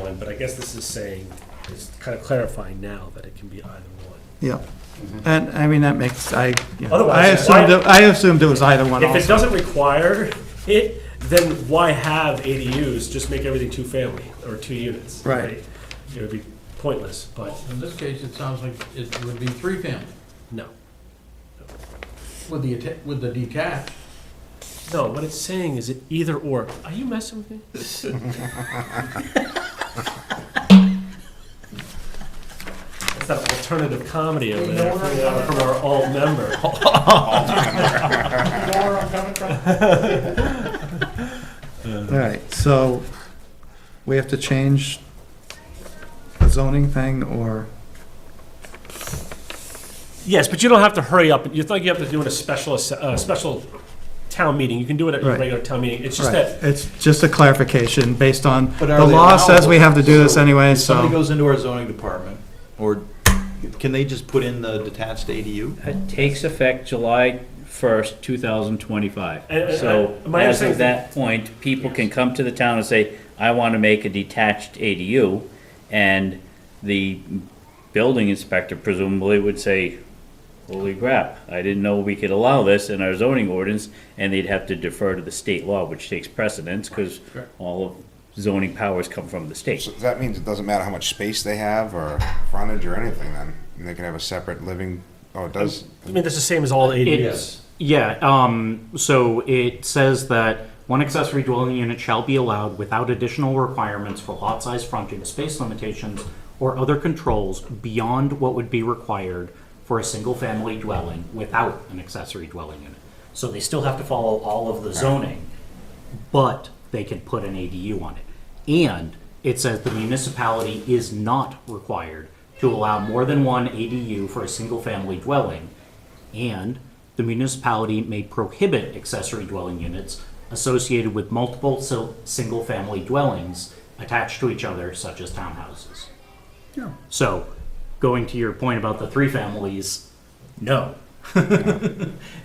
one, but I guess this is saying, it's kind of clarifying now that it can be either one. Yeah, and, I mean, that makes, I, you know, I Otherwise, assumed, why- it- I assumed it was either one If it also. doesn't require it, then why have ADUs? Just make everything two-family or two units. Right. It would be pointless, but In this case, it sounds like it would be three family no. with the, atta- with the detached. No, what it's saying is it either or. Are you messing with me? It's that alternative comedy over there from our- from our alt member. All right, so we have to change the zoning thing, or, Yes, but you don't have to hurry up. It's not like you have to do it a special, ass- uh, special town meeting. You can do it at a Right. regular town meeting. It's just right, that it's just a clarification based on, But the are they law says we have to do this allowable? anyway, If somebody so. goes into our zoning department, or can they just put in the detached ADU? It takes effect July 1st, 2025. And- and- So and my as understanding- of that point, people can come to the town and say, I want to make a detached ADU, and the building inspector presumably would say, holy crap, I didn't know we could allow this in our zoning ordinance, and they'd have to defer to the state law, which takes precedence, because all of zoning powers come from the state. So that means it doesn't matter how much space they have or frontage or anything then? And they can have a separate living, oh, it does, I mean that's the same as all ADUs. It's, yeah, um, so it says that one accessory dwelling unit shall be allowed without additional requirements for lot size, frontage, space limitations, or other controls beyond what would be required for a single-family dwelling without an accessory dwelling unit. So they still have to follow all of the zoning, but they can put an ADU on it. And it says the municipality is not required to allow more than one ADU for a single-family dwelling, and the municipality may prohibit accessory dwelling units associated with multiple sil- single-family dwellings attached to each other, such as townhouses. So, going to your point about the three families, no.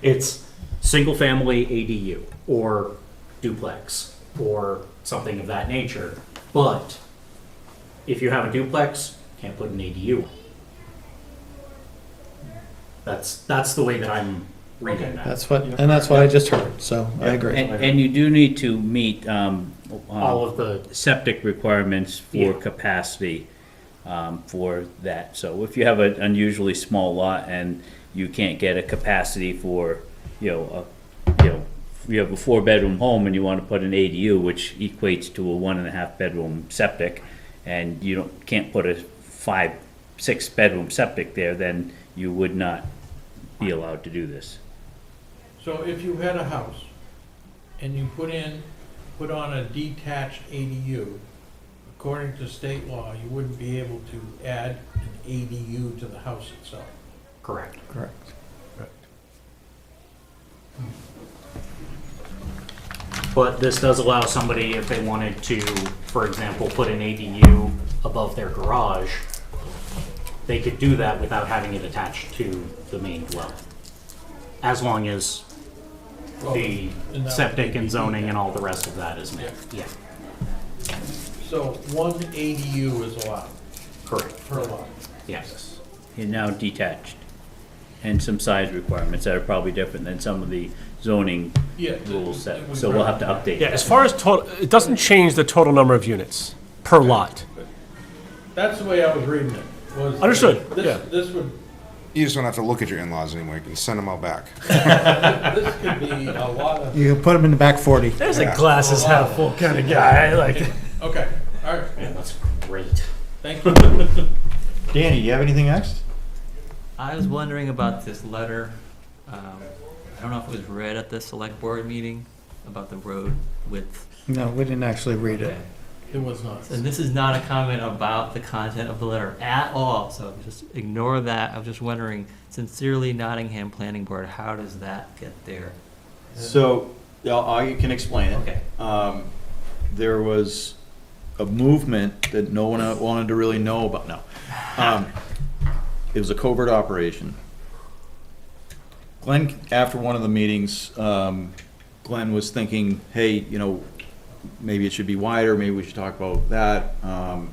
It's single-family ADU, or duplex, or something of that nature. But if you have a duplex, can't put an ADU. That's, that's the way that I'm reading that. That's what, and that's what I just heard, so I agree. And, and you do need to meet, um, All of the septic requirements for Yeah. capacity um, for that. So if you have an unusually small lot and you can't get a capacity for, you know, a, you know, you have a four-bedroom home and you want to put an ADU, which equates to a one and a half bedroom septic, and you don't, can't put a five, six bedroom septic there, then you would not be allowed to do this. So if you had a house and you put in, put on a detached ADU, according to state law, you wouldn't be able to add an ADU to the house itself. Correct. Correct. But this does allow somebody, if they wanted to, for example, put an ADU above their garage, they could do that without having it attached to the main dwelling. As long as Well, the Oh, that would septic be and zoning and all the rest of that is met. Yeah, So one ADU is allowed correct, per lot. yes. You're now detached. And some size requirements that are probably different than some of the zoning Yeah. rules that, so we'll have to update. Yeah, as far as total, it doesn't change the total number of units per lot. That's the way I was reading it, was. Understood, This- yeah. This would, you just don't have to look at your in-laws anymore, you can send them all back. this could be a lot of, You can put them in the back forty. There's a glasses half full kind of guy, like. okay, all right, Man, that's great. thank you. Danny, you have anything next? I was wondering about this letter. Um, I don't know if it was read at the select board meeting about the road width. No, we didn't actually read it. It was not. And this is not a comment about the content of the letter at all, so just ignore that. I was just wondering, sincerely Nottingham Planning Board, how does that get there? So, yeah, I can explain it. Okay. Um, there was a movement that no one wanted to really know about, no. Um, it was a covert operation. Glenn, after one of the meetings, um, Glenn was thinking, hey, you know, maybe it should be wider, maybe we should talk about that. Um,